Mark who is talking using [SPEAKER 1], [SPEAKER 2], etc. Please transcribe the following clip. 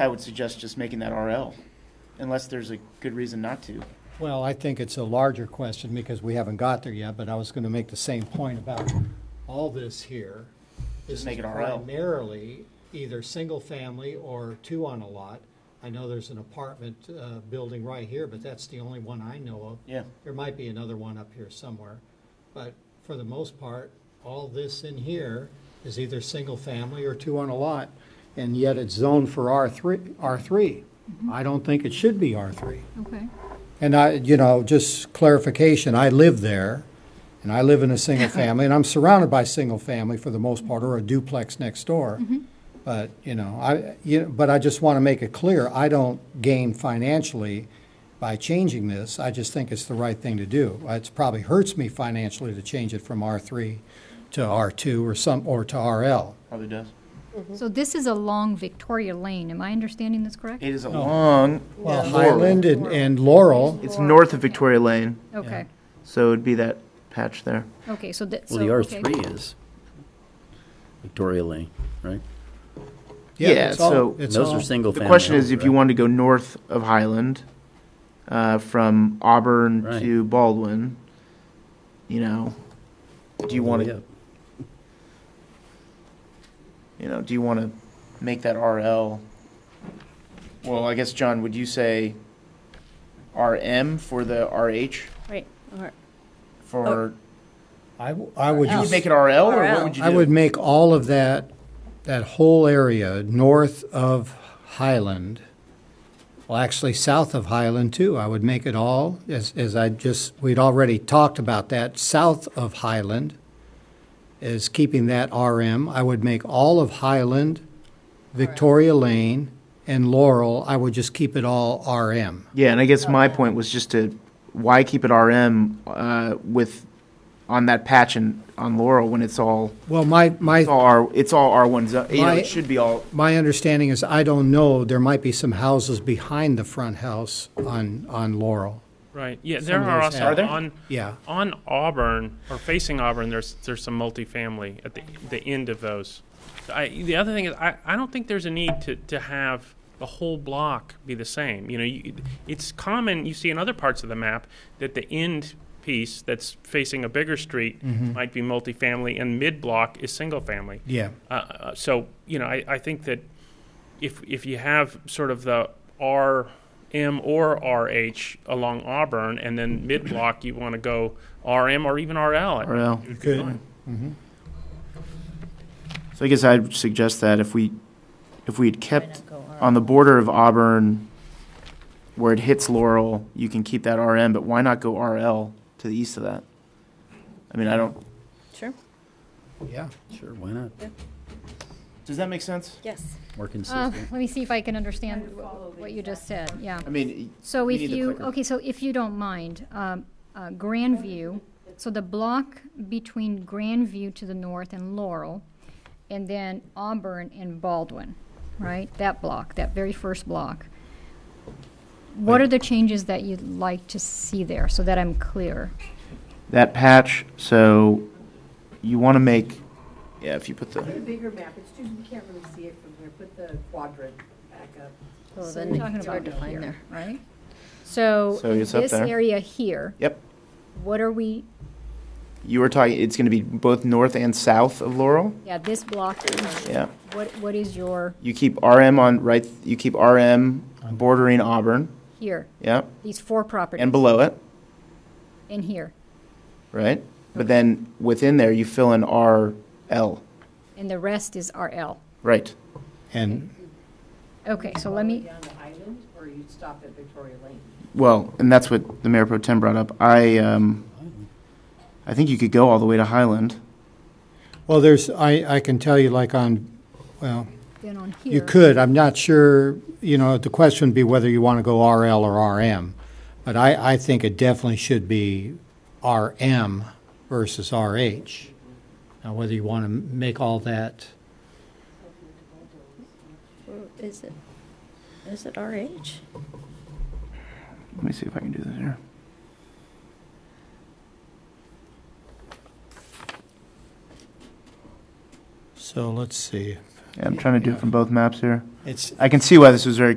[SPEAKER 1] I would suggest just making that RL, unless there's a good reason not to.
[SPEAKER 2] Well, I think it's a larger question because we haven't got there yet, but I was going to make the same point about all this here. This
[SPEAKER 1] Just make
[SPEAKER 2] is
[SPEAKER 1] it RL.
[SPEAKER 2] primarily either single-family or two on a lot. I know there's an apartment uh, building right here, but that's the only one I know of.
[SPEAKER 1] Yeah.
[SPEAKER 2] There might be another one up here somewhere, but for the most part, all this in here is either single-family or two on a lot, and yet it's zoned for R3, R3.
[SPEAKER 1] Mm-hmm.
[SPEAKER 2] I don't think it should be R3.
[SPEAKER 3] Okay,
[SPEAKER 2] And I, you know, just clarification, I live there, and I live in a single family, and I'm surrounded by single family for the most part, or a duplex next door. But, you know, I, you, but I just want to make it clear, I don't gain financially by changing this. I just think it's the right thing to do. It's probably hurts me financially to change it from R three to R two or some, or to RL.
[SPEAKER 1] Probably does.
[SPEAKER 3] so this is along Victoria Lane, am I understanding this correct?
[SPEAKER 1] It is a long.
[SPEAKER 2] Well,
[SPEAKER 1] Laurel.
[SPEAKER 2] Highland and, and Laurel,
[SPEAKER 1] It's north of Victoria Lane,
[SPEAKER 3] Okay,
[SPEAKER 1] so it'd be that patch there.
[SPEAKER 3] okay, so that, so,
[SPEAKER 4] Well, the R
[SPEAKER 3] okay.
[SPEAKER 4] three is Victoria Lane, right?
[SPEAKER 2] yeah,
[SPEAKER 1] Yeah,
[SPEAKER 2] it's all,
[SPEAKER 1] so-
[SPEAKER 2] it's
[SPEAKER 4] Those
[SPEAKER 2] all-
[SPEAKER 4] are single
[SPEAKER 1] The
[SPEAKER 4] family.
[SPEAKER 1] question is if
[SPEAKER 4] homes,
[SPEAKER 1] you
[SPEAKER 4] right?
[SPEAKER 1] wanted to go north of Highland, uh, from Auburn
[SPEAKER 4] Right.
[SPEAKER 1] to Baldwin, you know, do you want
[SPEAKER 4] Yeah.
[SPEAKER 1] to, you know, do you want to make that RL? Well, I guess, John, would you say RM for the RH
[SPEAKER 5] Right, or,
[SPEAKER 1] for,
[SPEAKER 2] I, w- I would
[SPEAKER 1] you
[SPEAKER 2] just.
[SPEAKER 1] would make it RL or what
[SPEAKER 5] RL.
[SPEAKER 1] would you do?
[SPEAKER 2] I would make all of that, that whole area north of Highland, well, actually south of Highland too. I would make it all, as, as I just, we'd already talked about that, south of Highland is keeping that RM. I would make all of Highland, Victoria Lane, and Laurel, I would just keep it all RM.
[SPEAKER 1] Yeah, and I guess my point was just to why keep it RM uh, with on that patch and on Laurel when it's all
[SPEAKER 2] Well, my, my.
[SPEAKER 1] it's all R it's all R one zone. You know,
[SPEAKER 2] My-
[SPEAKER 1] it should be all
[SPEAKER 2] My understanding is, I don't know, there might be some houses behind the front house on, on Laurel.
[SPEAKER 6] Right, yeah, there
[SPEAKER 2] of
[SPEAKER 6] are
[SPEAKER 2] those
[SPEAKER 6] also,
[SPEAKER 2] have-
[SPEAKER 1] Are there?
[SPEAKER 6] on,
[SPEAKER 2] Yeah,
[SPEAKER 6] on Auburn, or facing Auburn, there's, there's some multifamily at the, the end of those. I, the other thing is, I, I don't think there's a need to, to have the whole block be the same. You know, you, it's common, you see in other parts of the map, that the end piece that's facing a bigger street
[SPEAKER 2] Mm-hmm.
[SPEAKER 6] might be multifamily, and mid-block is single-family.
[SPEAKER 2] yeah.
[SPEAKER 6] Uh, uh, so, you know, I, I think that if, if you have sort of the RM or RH along Auburn, and then mid-block, you want to go RM or even
[SPEAKER 1] RL.
[SPEAKER 6] RL. It would be
[SPEAKER 2] Good.
[SPEAKER 6] fine.
[SPEAKER 2] Mm-hmm.
[SPEAKER 1] So I guess I'd suggest that if we if we had kept
[SPEAKER 5] not go RL?
[SPEAKER 1] on the border of Auburn where it hits Laurel, you can keep that RM, but why not go RL to the east of that? I mean, I don't.
[SPEAKER 5] sure,
[SPEAKER 2] Yeah.
[SPEAKER 4] Sure, why not?
[SPEAKER 1] Does that make sense?
[SPEAKER 5] yes.
[SPEAKER 4] More
[SPEAKER 3] Uh,
[SPEAKER 4] consistent.
[SPEAKER 3] let me see if I can understand wh- what you just said, yeah.
[SPEAKER 1] I mean,
[SPEAKER 3] So
[SPEAKER 1] we
[SPEAKER 3] if
[SPEAKER 1] need the
[SPEAKER 3] you,
[SPEAKER 1] clicker.
[SPEAKER 3] okay, so if you don't mind, um, uh, Grandview, so the block between Grandview to the north and Laurel, and then Auburn and Baldwin, right? That block, that very first block. What are the changes that you'd like to see there, so that I'm clear?
[SPEAKER 1] that patch. So you want to make yeah. If you put the
[SPEAKER 7] The bigger map, it's just, you can't really see it from here, put the quadrant back up.
[SPEAKER 5] Well,
[SPEAKER 3] So
[SPEAKER 5] then
[SPEAKER 3] we're talking
[SPEAKER 5] it's hard to
[SPEAKER 3] about
[SPEAKER 5] find
[SPEAKER 3] here,
[SPEAKER 5] there.
[SPEAKER 3] Right? So,
[SPEAKER 1] So it's up
[SPEAKER 3] this
[SPEAKER 1] there.
[SPEAKER 3] area here,
[SPEAKER 1] yep.
[SPEAKER 3] what are we,
[SPEAKER 1] You were talking, it's going to be both north and south of Laurel?
[SPEAKER 3] yeah, this block,
[SPEAKER 1] Yeah.
[SPEAKER 3] what, what is your,
[SPEAKER 1] You keep RM on, right, you keep RM bordering Auburn,
[SPEAKER 3] here,
[SPEAKER 1] yeah,
[SPEAKER 3] these four properties?
[SPEAKER 1] and below it,
[SPEAKER 3] in here,
[SPEAKER 1] right? But then within there, you fill in RL,
[SPEAKER 3] and the rest is RL.
[SPEAKER 1] right?
[SPEAKER 2] And,
[SPEAKER 3] Okay, so let
[SPEAKER 7] All the way
[SPEAKER 3] me,
[SPEAKER 7] Down to Island, or you stop at Victoria Lane.
[SPEAKER 1] Well, and that's what the Mayor Pro Tem brought up. I, um, I think you could go all the way to Highland.
[SPEAKER 2] well, there's, I, I can tell you like on, well,
[SPEAKER 3] then on here.
[SPEAKER 2] you could, I'm not sure, you know, the question would be whether you want to go RL or RM. But I, I think it definitely should be RM versus RH. Now, whether you want to make all that,
[SPEAKER 5] Or Is it, is it RH?
[SPEAKER 1] Let me see if I can do this here.
[SPEAKER 2] so let's see.
[SPEAKER 1] Yeah, I'm trying to do it from both maps here.
[SPEAKER 2] It's,
[SPEAKER 1] I can see why this was very